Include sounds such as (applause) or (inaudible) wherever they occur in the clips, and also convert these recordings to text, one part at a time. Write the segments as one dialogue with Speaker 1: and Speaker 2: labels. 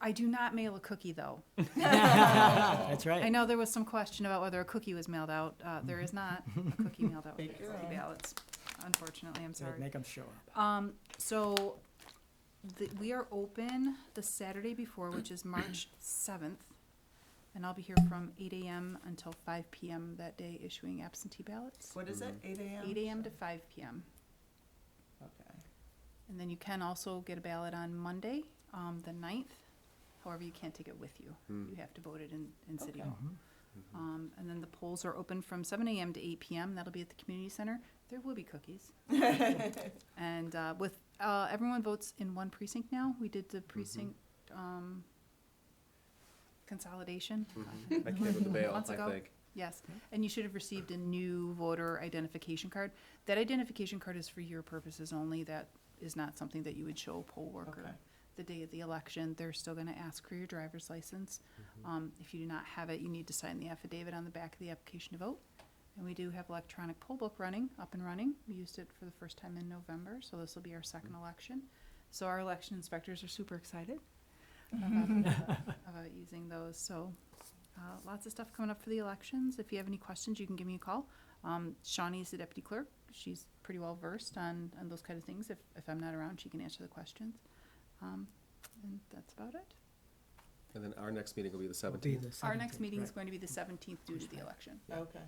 Speaker 1: I do not mail a cookie, though.
Speaker 2: (laughs) That's
Speaker 1: I
Speaker 2: right.
Speaker 1: know there was some question about whether a cookie was mailed out. Uh, there
Speaker 3: Mm-hmm.
Speaker 1: is not
Speaker 3: (laughs)
Speaker 1: a cookie mailed out with
Speaker 2: Take
Speaker 1: absentee ballots, unfortunately, I'm
Speaker 2: So
Speaker 1: sorry.
Speaker 2: Make them show up.
Speaker 1: Um, so, the, we are open the Saturday before, which is
Speaker 3: (clears throat)
Speaker 1: March seventh. And I'll be here from eight AM until five PM that day issuing absentee ballots.
Speaker 3: What is it, eight AM?
Speaker 1: Eight AM to five PM.
Speaker 3: Okay.
Speaker 1: And then you can also get a ballot on Monday, um, the ninth. However, you can't take it with you. You have to vote it in, in City
Speaker 3: Okay.
Speaker 1: Hall.
Speaker 2: Mm-hmm.
Speaker 1: Um, and then the polls are open from seven AM to eight PM. That'll be at the community center. There will be cookies. And, uh, with, uh, everyone votes in one precinct now. We did the precinct, um, consolidation.
Speaker 4: I came with the bail,
Speaker 1: Months
Speaker 4: I
Speaker 1: ago.
Speaker 4: think.
Speaker 1: Yes, and you should have received a new voter identification card. That identification card is for your purposes only. That is not something that you would show a poll worker.
Speaker 3: Okay.
Speaker 1: The day of the election, they're still gonna ask for your driver's license. Um, if you do not have it, you need to sign the affidavit on the back of the application to vote. And we do have electronic poll book running, up and running. We used it for the first time in November, so this will be our second election. So our election inspectors are super excited about, uh, about using those, so uh, lots of stuff coming up for the elections. If you have any questions, you can give me a call. Um, Shawnee's the deputy clerk. She's pretty well versed on, on those kind of things. If, if I'm not around, she can answer the questions. Um, and that's about it.
Speaker 4: And then our next meeting will be the
Speaker 2: Will be
Speaker 4: seventeenth.
Speaker 2: the
Speaker 1: Our next
Speaker 2: 17th,
Speaker 1: meeting is
Speaker 2: right.
Speaker 1: going to be the seventeenth due to the election.
Speaker 3: Okay.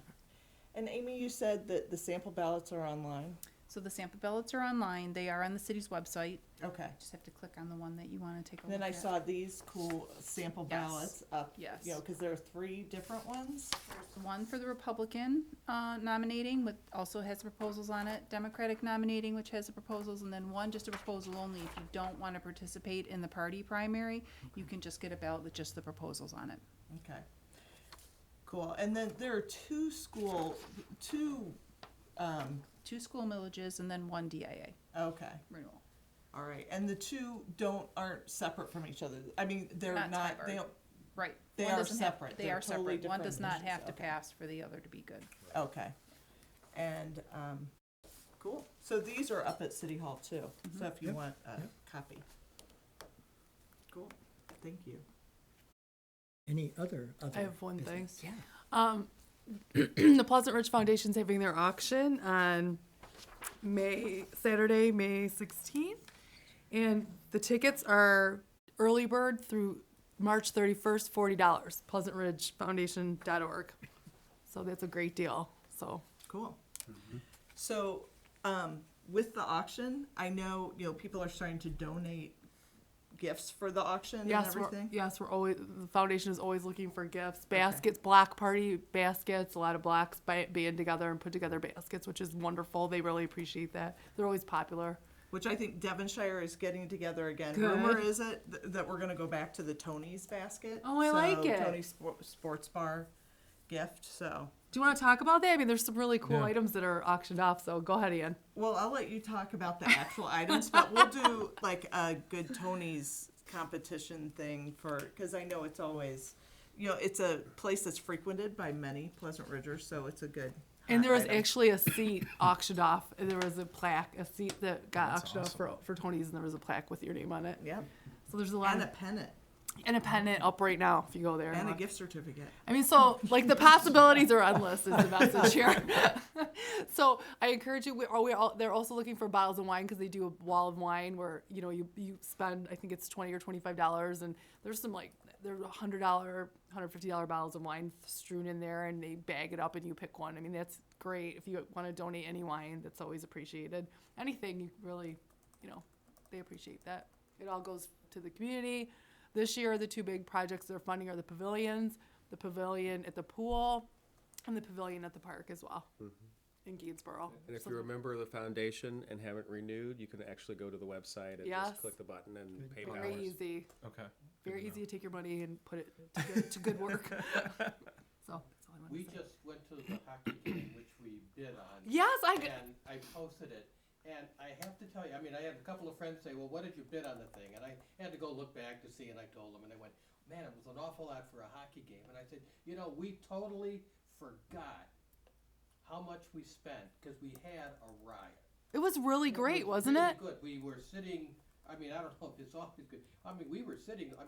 Speaker 3: And Amy, you said that the sample ballots are online?
Speaker 1: So the sample ballots are online. They are on the city's website.
Speaker 3: Okay.
Speaker 1: Just have to click on the one that you want to take a look
Speaker 3: Then I
Speaker 1: at.
Speaker 3: saw these cool sample
Speaker 1: Yes.
Speaker 3: ballots up, you
Speaker 1: Yes.
Speaker 3: know, because there are three different ones.
Speaker 1: One for the Republican uh, nominating with, also has proposals on it, Democratic nominating, which has the proposals, and then one just a proposal only. If you don't want to participate in the party primary, you can just get a ballot with just the proposals on it.
Speaker 3: Okay. Cool. And then there are two school, two, um,
Speaker 1: Two school millages and then one DIA
Speaker 3: okay,
Speaker 1: renewal.
Speaker 3: all right. And the two don't, aren't separate from each other. I mean, they're
Speaker 1: Not
Speaker 3: not,
Speaker 1: tied
Speaker 3: they
Speaker 1: or-
Speaker 3: don't,
Speaker 1: Right.
Speaker 3: They
Speaker 1: One
Speaker 3: are
Speaker 1: doesn't have-
Speaker 3: separate.
Speaker 1: They
Speaker 3: They're
Speaker 1: are
Speaker 3: totally
Speaker 1: separate. One
Speaker 3: different
Speaker 1: does not
Speaker 3: issues.
Speaker 1: have to
Speaker 3: Okay.
Speaker 1: pass for the other to be good.
Speaker 3: Okay. And, um, cool. So these are up at City Hall too,
Speaker 5: Mm-hmm.
Speaker 3: so if you
Speaker 2: Yep,
Speaker 3: want a
Speaker 2: yep.
Speaker 3: copy. Cool, thank you.
Speaker 2: Any other, other?
Speaker 5: I have one thing.
Speaker 2: business? Yeah.
Speaker 5: Um, (clears throat) the Pleasant Ridge Foundation's having their auction on May, Saturday, May sixteenth. And the tickets are early bird through March thirty-first, forty dollars, pleasantridgefoundation.org. So that's a great deal, so.
Speaker 3: Cool. So, um, with the auction, I know, you know, people are starting to donate gifts for the auction and
Speaker 5: Yes, we're,
Speaker 3: everything.
Speaker 5: yes, we're always, the foundation is always looking for gifts, baskets, block party baskets, a lot of blocks ba- band together and put together baskets, which is wonderful. They really appreciate that. They're always popular.
Speaker 3: Which I think Devonshire is getting together again.
Speaker 5: Good.
Speaker 3: Rumor is it th- that we're gonna go back to the Tony's basket?
Speaker 5: Oh, I like
Speaker 3: So,
Speaker 5: it.
Speaker 3: Tony's Spor- Sports Bar gift, so.
Speaker 5: Do you want to talk about that? I mean, there's some really cool
Speaker 2: Yeah.
Speaker 5: items that are auctioned off, so go ahead, Ian.
Speaker 3: Well, I'll let you talk about the actual items, but we'll do like a good Tony's competition thing for, because I know it's always, you know, it's a place that's frequented by many Pleasant Ridgers, so it's a good.
Speaker 5: And there was
Speaker 3: hot item.
Speaker 5: actually a seat (coughs) auctioned off. and There was a plaque, a seat that got
Speaker 2: That's
Speaker 5: auctioned off for, for Tony's, and there was a plaque with your name on it.
Speaker 3: Yep,
Speaker 5: So there's a lot
Speaker 3: and a
Speaker 5: of
Speaker 3: pennant,
Speaker 5: and a pennant up right now if you go there. and
Speaker 3: and a
Speaker 5: look.
Speaker 3: gift certificate.
Speaker 5: I mean, so like the possibilities are endless is the message here. (laughs) so I encourage you. We are we all, they're also looking for bottles of wine because they do a wall of wine where you know you you spend I think it's twenty or twenty five dollars and there's some like there's a hundred dollar, hundred fifty dollar bottles of wine strewn in there and they bag it up and you pick one. I mean that's great if you want to donate any wine that's always appreciated. Anything you really, you know, they appreciate that. It all goes to the community. This year, the two big projects they're funding are the pavilions, the pavilion at the pool, and the pavilion at the park as well in Gainsborough.
Speaker 4: And if
Speaker 5: So-
Speaker 4: you're a member of the foundation and haven't renewed, you can actually go to the website and
Speaker 5: Yes.
Speaker 4: just click the button and pay
Speaker 5: very
Speaker 4: hours.
Speaker 5: easy,
Speaker 4: Okay.
Speaker 5: very easy to take your money and put it to good, to good
Speaker 4: (laughs)
Speaker 5: work. so that's all I want
Speaker 6: We
Speaker 5: to say.
Speaker 6: just went to the hockey game, which we bid on,
Speaker 5: Yes, I. g-
Speaker 6: and I posted it. And I have to tell you, I mean, I had a couple of friends say, well, what did you bid on the thing? And I had to go look back to see, and I told them, and they went, man, it was an awful lot for a hockey game. And I said, you know, we totally forgot how much we spent, because we had a riot.
Speaker 5: It was really
Speaker 6: It
Speaker 5: great,
Speaker 6: was
Speaker 5: wasn't
Speaker 6: really
Speaker 5: it?
Speaker 6: Good. We were sitting. I mean, I don't know if it's always good. I mean, we were sitting. I